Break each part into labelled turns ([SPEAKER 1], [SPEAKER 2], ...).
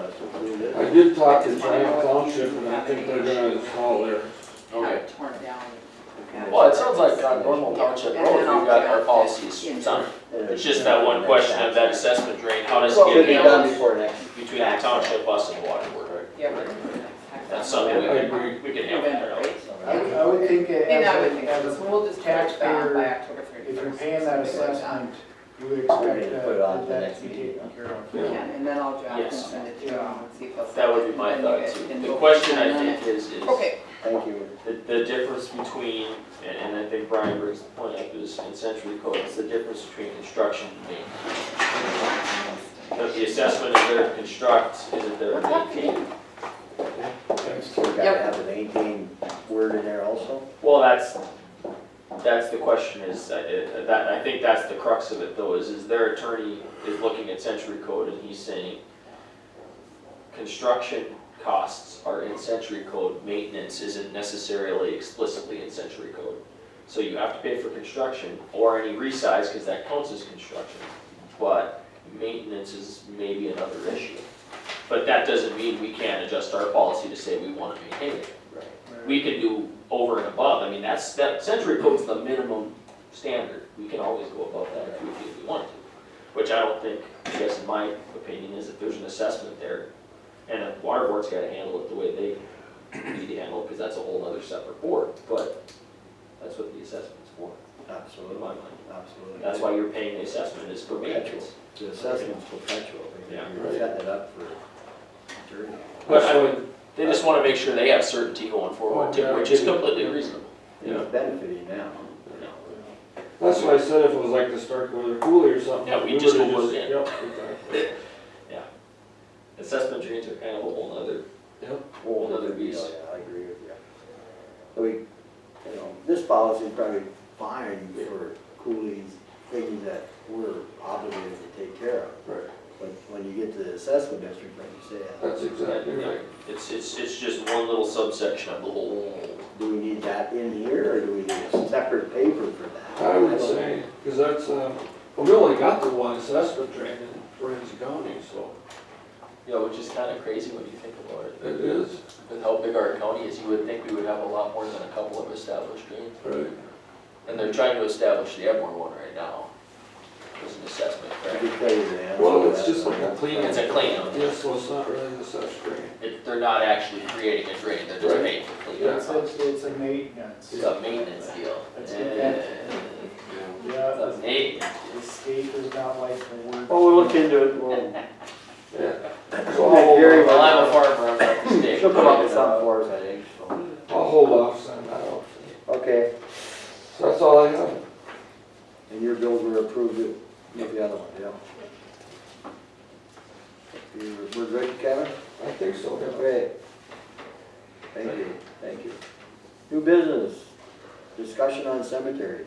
[SPEAKER 1] it
[SPEAKER 2] I
[SPEAKER 1] is.
[SPEAKER 2] did talk to Giant Township, and I think they're gonna install there.
[SPEAKER 3] Okay.
[SPEAKER 4] Have it torn down.
[SPEAKER 3] Well, it sounds like on normal township roads, we've got our policies done. It's just that one question of that assessment drain, how does
[SPEAKER 1] Well,
[SPEAKER 3] it
[SPEAKER 1] could be
[SPEAKER 3] get
[SPEAKER 1] done
[SPEAKER 3] handled
[SPEAKER 1] before next.
[SPEAKER 3] between the township, us and water board?
[SPEAKER 4] Yeah, we're gonna do it next time.
[SPEAKER 3] That's something we
[SPEAKER 2] I agree.
[SPEAKER 3] can, we can handle.
[SPEAKER 4] November,
[SPEAKER 3] there.
[SPEAKER 4] right?
[SPEAKER 5] I would, I would think that
[SPEAKER 4] And I
[SPEAKER 5] as
[SPEAKER 4] would
[SPEAKER 5] a,
[SPEAKER 4] think,
[SPEAKER 5] as
[SPEAKER 4] so
[SPEAKER 5] a,
[SPEAKER 4] we'll just have it back by
[SPEAKER 5] taxpayer,
[SPEAKER 4] October thirty
[SPEAKER 5] if
[SPEAKER 4] first.
[SPEAKER 5] you're paying that assessment, you would
[SPEAKER 1] We need
[SPEAKER 5] expect
[SPEAKER 1] to put it on
[SPEAKER 5] that,
[SPEAKER 1] to the
[SPEAKER 5] that
[SPEAKER 1] next
[SPEAKER 5] to be
[SPEAKER 1] meeting,
[SPEAKER 5] taken care of.
[SPEAKER 4] You can, and then I'll draft and
[SPEAKER 3] Yes.
[SPEAKER 4] send it to you and see if they'll.
[SPEAKER 3] That would be my
[SPEAKER 4] send it, and
[SPEAKER 3] thought
[SPEAKER 4] you
[SPEAKER 3] too.
[SPEAKER 4] guys
[SPEAKER 3] The
[SPEAKER 4] can
[SPEAKER 3] question
[SPEAKER 4] vote
[SPEAKER 3] I
[SPEAKER 4] on
[SPEAKER 3] think
[SPEAKER 4] it.
[SPEAKER 3] is, is
[SPEAKER 4] Okay,
[SPEAKER 1] Thank you.
[SPEAKER 3] the, the difference between, and, and I think Brian brings the point up, is in century code, it's the difference between construction and maintenance. If the assessment is there to construct, is it there to maintain?
[SPEAKER 1] So we gotta have an eighteen word in there also?
[SPEAKER 3] Well, that's, that's the question is, uh, uh, that, I think that's the crux of it though, is, is their attorney is looking at century code and he's saying, construction costs are in century code, maintenance isn't necessarily explicitly in century code. So you have to pay for construction or any resize, cause that counts as construction, but maintenance is maybe another issue. But that doesn't mean we can't adjust our policy to say we wanna maintain it we can do over and above, I mean, that's, that century code's the minimum standard, we can always go above that if we, if we want to. Which I don't think, I guess in my opinion, is if there's an assessment there, and the water board's gotta handle it the way they need to handle it, cause that's a whole other separate board, but that's what the assessment's for, in
[SPEAKER 1] Absolutely,
[SPEAKER 3] my mind.
[SPEAKER 1] absolutely.
[SPEAKER 3] That's why you're paying the assessment is for maintenance.
[SPEAKER 1] The assessment's perpetual. We-
[SPEAKER 3] Yeah.
[SPEAKER 1] We're setting it up for eternity.
[SPEAKER 3] But I would, they just wanna make sure they have certainty going forward too, which is completely reasonable.
[SPEAKER 2] Yeah.
[SPEAKER 1] It's benefiting now.
[SPEAKER 2] That's why I said if it was like the Stark Weather Coolie or something.
[SPEAKER 3] Yeah, we just
[SPEAKER 2] would've
[SPEAKER 3] go with it.
[SPEAKER 2] Yep, exactly.
[SPEAKER 3] Assessment drains are kind of a whole nother
[SPEAKER 2] Yep.
[SPEAKER 3] whole other beast.
[SPEAKER 1] Yeah, I agree with you. So we, you know, this policy is probably fine for coolies, things that we're obligated to take care of.
[SPEAKER 2] Right.
[SPEAKER 1] But when you get to the assessment district, like you say,
[SPEAKER 2] That's exactly right.
[SPEAKER 3] It's, it's, it's just one little subsection of the whole.
[SPEAKER 1] do we need that in here or do we need a separate paper for that?
[SPEAKER 2] I would
[SPEAKER 1] don't-
[SPEAKER 2] say, because that's, uh, well, we only got the one assessment drain in Ramsey County, so
[SPEAKER 3] Yeah, which is kind of crazy when you think about
[SPEAKER 2] it is.
[SPEAKER 3] With how big our county is, you would think we would have a lot more than a couple of established drains.
[SPEAKER 2] Right.
[SPEAKER 3] And they're trying to establish the Edmore one right now. There's an assessment,
[SPEAKER 1] I
[SPEAKER 3] correct?
[SPEAKER 1] could tell you the answer.
[SPEAKER 2] Well,
[SPEAKER 1] to
[SPEAKER 2] it's
[SPEAKER 1] that.
[SPEAKER 2] just like a clean.
[SPEAKER 3] It's a cleanup.
[SPEAKER 2] Yeah, so it's not really an assessment drain.
[SPEAKER 3] It, they're not actually creating a drain, they're just
[SPEAKER 2] Right.
[SPEAKER 3] paying for
[SPEAKER 5] It's,
[SPEAKER 3] cleanup.
[SPEAKER 5] it's, it's a maintenance.
[SPEAKER 3] It's a maintenance deal.
[SPEAKER 5] It's a-
[SPEAKER 3] Eh,
[SPEAKER 5] Yeah,
[SPEAKER 3] it's a maintenance.
[SPEAKER 5] the state does not like the word.
[SPEAKER 1] Oh, Well, we'll look into it, we'll,
[SPEAKER 2] Yeah. So I'll hold
[SPEAKER 1] Gary
[SPEAKER 2] off-
[SPEAKER 3] Well, I'm a farmer, I'm not the state.
[SPEAKER 1] she'll come up with something for us, I think, so.
[SPEAKER 2] I'll hold off, send that out.
[SPEAKER 1] Okay,
[SPEAKER 2] So that's all I have.
[SPEAKER 1] and your bills were approved, it- with the other one, yeah. You- We're good, Kevin?
[SPEAKER 2] I think so, yeah.
[SPEAKER 1] Okay. Thank you, thank you. New business, discussion on cemeteries.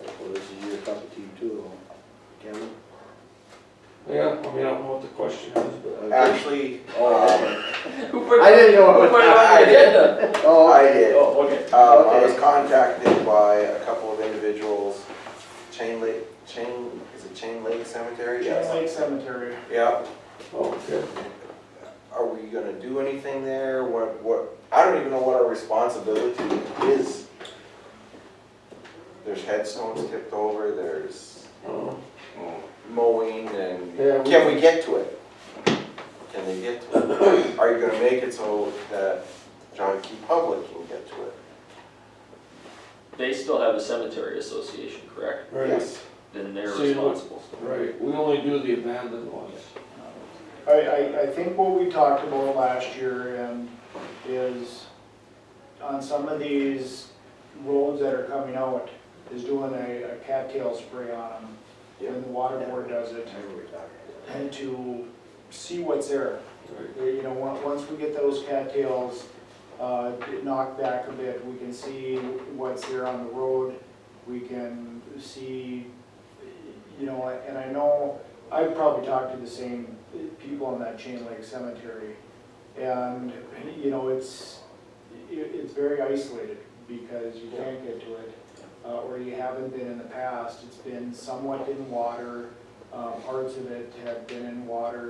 [SPEAKER 1] Well, this is your cup of tea too, Kevin?
[SPEAKER 2] Yeah, I mean, I don't know what the question is, but.
[SPEAKER 6] Actually, um,
[SPEAKER 1] Oh,
[SPEAKER 3] Who put,
[SPEAKER 1] I didn't know.
[SPEAKER 3] who put it on the agenda?
[SPEAKER 1] Oh,
[SPEAKER 6] I did.
[SPEAKER 3] Oh, okay.
[SPEAKER 6] Uh, I was
[SPEAKER 1] Okay.
[SPEAKER 6] contacted by a couple of individuals, Chain Lake, Chain, is it Chain Lake Cemetery?
[SPEAKER 5] Chain
[SPEAKER 6] Yes.
[SPEAKER 5] Lake Cemetery.
[SPEAKER 6] Yeah,
[SPEAKER 2] Oh, okay.
[SPEAKER 6] are we gonna do anything there? What, what, I don't even know what our responsibility is. There's headstones tipped over, there's
[SPEAKER 2] Oh.
[SPEAKER 6] mowing and,
[SPEAKER 2] Yeah, we-
[SPEAKER 6] can we get to it? Can they get to it? Are you gonna make it so that John Key Public can get to it?
[SPEAKER 3] They still have a cemetery association, correct?
[SPEAKER 2] Right.
[SPEAKER 6] Yes.
[SPEAKER 3] Then they're
[SPEAKER 2] So you know-
[SPEAKER 3] responsible.
[SPEAKER 2] Right, we only do the abandoned ones.
[SPEAKER 5] I, I, I think what we talked about last year and is on some of these roads that are coming out is doing a a cattail spray on them.
[SPEAKER 6] Yeah.
[SPEAKER 5] When the water board does it
[SPEAKER 1] Remember we talked about that.
[SPEAKER 5] and to see what's there.
[SPEAKER 2] Right.
[SPEAKER 5] Uh, You know, on- once we get those cattails uh, knocked back a bit, we can see what's there on the road. We can see, you know, and I know, I've probably talked to the same people in that Chain Lake Cemetery. And, you know, it's, i- it's very isolated because you can't get to it. uh, Or you haven't been Um, in the past. It's been somewhat in water. uh, Parts of it have been in water.